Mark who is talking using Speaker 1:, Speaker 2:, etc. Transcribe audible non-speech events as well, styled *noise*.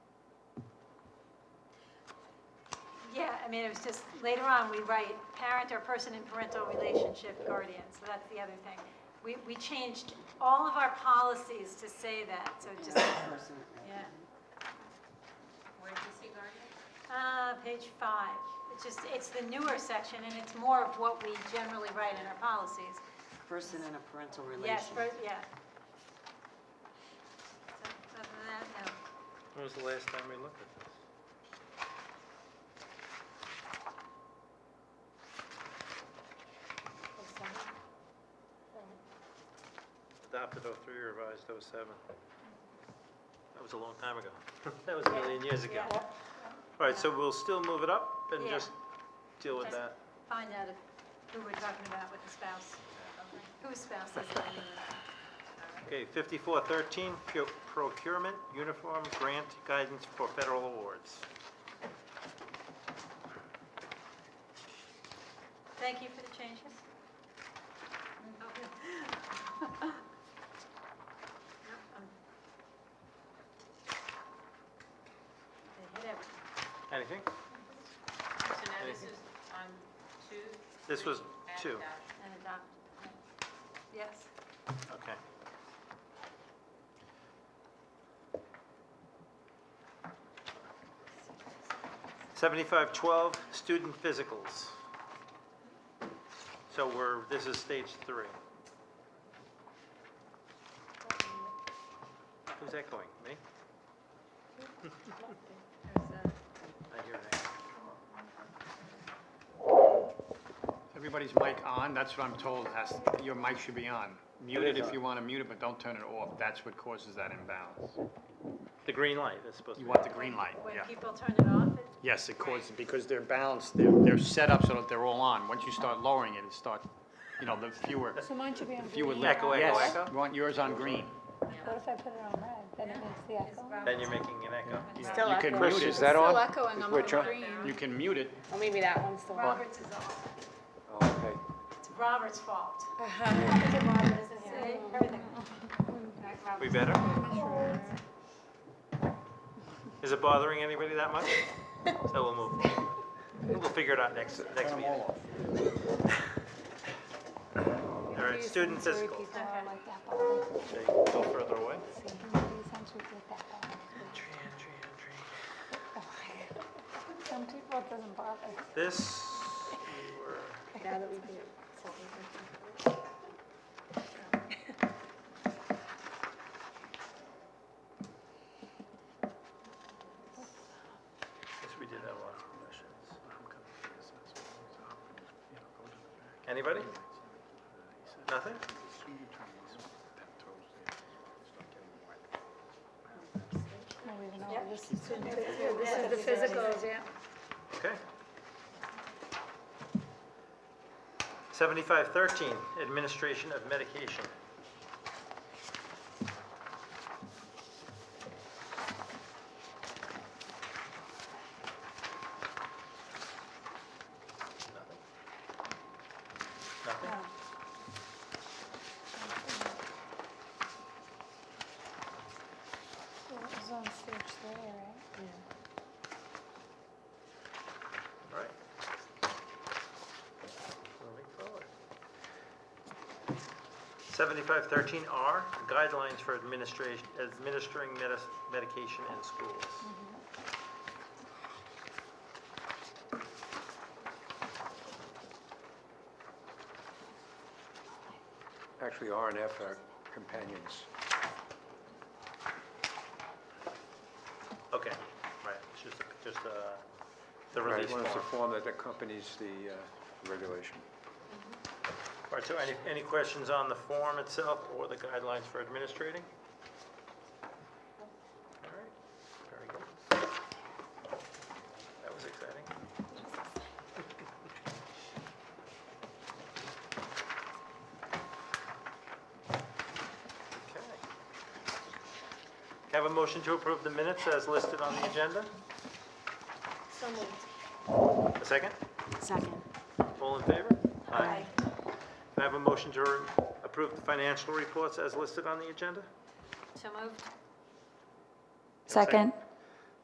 Speaker 1: mean, it was just, later on, we write parent or person in parental relationship guardian, so that's the other thing. We, we changed all of our policies to say that, so it just,
Speaker 2: person.
Speaker 1: yeah.
Speaker 3: Where did you see guardian?
Speaker 1: Uh, page five, it's just, it's the newer section, and it's more of what we generally write in our policies.
Speaker 2: Person in a parental
Speaker 1: Yes,
Speaker 2: relation.
Speaker 1: for- yeah. So, Other than that, no.
Speaker 4: When was the last time we looked at this? Adopted 03, revised 07. That was a long time ago. *laughs* That was a million years ago.
Speaker 1: Yeah.
Speaker 4: All right, so we'll still move it up and
Speaker 1: Yeah.
Speaker 4: just deal with
Speaker 1: Just-
Speaker 4: that.
Speaker 1: Find out if- who we're talking about with the spouse, whose spouse is it.
Speaker 4: Okay, 5413, pu- procurement, uniform, grant, guidance for federal awards.
Speaker 1: Thank you for the changes. Okay. Yep, um, They hit everything.
Speaker 4: Anything?
Speaker 3: So now this
Speaker 4: Okay.
Speaker 3: is on two?
Speaker 4: This was
Speaker 3: three,
Speaker 4: two.
Speaker 3: and uh, that.
Speaker 1: And adopt. Yes.
Speaker 4: Okay. Seventy-five twelve, student physicals. So we're, this is stage three. Who's echoing? Me?
Speaker 1: uh,
Speaker 4: I hear an echo.
Speaker 5: Everybody's mic on, that's what I'm told, has, your mic should be on. Mute it if you want to mute it, but don't turn it off, that's what causes that imbalance.
Speaker 4: The green light is supposed to
Speaker 5: You
Speaker 4: be.
Speaker 5: want the green light,
Speaker 1: When
Speaker 5: yeah.
Speaker 1: people turn it off, it-
Speaker 5: Yes, it causes, because they're balanced, they're, they're set up so that they're all on. Once you start lowering it, it start, you know, the fewer,
Speaker 6: So mine should be on
Speaker 5: the fewer.
Speaker 6: green.
Speaker 5: left.
Speaker 4: Echo, echo,
Speaker 5: Yes,
Speaker 4: echo?
Speaker 5: you want yours on green.
Speaker 6: What if I put it on red, then it makes the echo?
Speaker 4: Then you're making an echo.
Speaker 5: You
Speaker 6: Still
Speaker 5: you can
Speaker 6: echoing.
Speaker 5: mute
Speaker 7: Rich, is
Speaker 5: it.
Speaker 7: that on?
Speaker 6: echoing,
Speaker 7: Is
Speaker 6: I'm
Speaker 7: Rich on?
Speaker 5: You can mute it,
Speaker 6: Well, maybe that one's the one.
Speaker 1: Robert's is off.
Speaker 7: Oh, Okay.
Speaker 1: It's Robert's fault. See, everything.
Speaker 4: We better? Is it bothering anybody that much? So we'll move forward. We'll figure it out next, next meeting. All right, student physical. Okay, Go further away.
Speaker 6: Some people it doesn't bother.
Speaker 4: This, we were-
Speaker 6: Now that we do. *laughs*
Speaker 4: yes, we did have a lot of questions. Anybody? Nothing?
Speaker 1: Yep.
Speaker 6: This is
Speaker 1: This is the physicals,
Speaker 6: yeah.
Speaker 4: Okay. Seventy-five thirteen, administration of medication. Nothing. Nothing?
Speaker 6: It was on stage three, right?
Speaker 4: All right. Moving forward. Seventy-five thirteen R, guidelines for administration, administering medis- medication in schools.
Speaker 7: Actually, R and F are companions.
Speaker 4: Okay, right, it's just, just, uh, the
Speaker 7: Right,
Speaker 4: release
Speaker 7: One is the
Speaker 4: form.
Speaker 7: form that accompanies the uh, regulation.
Speaker 4: All right, so any, any questions on the form itself or the guidelines for administrating? All right, very good. That was exciting. Okay. Have a motion to approve the minutes as listed on the agenda? So moved. A second?
Speaker 6: Second.
Speaker 4: All in favor? Aye. Can I have a motion to approve the financial reports as listed on the agenda?
Speaker 1: So moved.
Speaker 4: Second.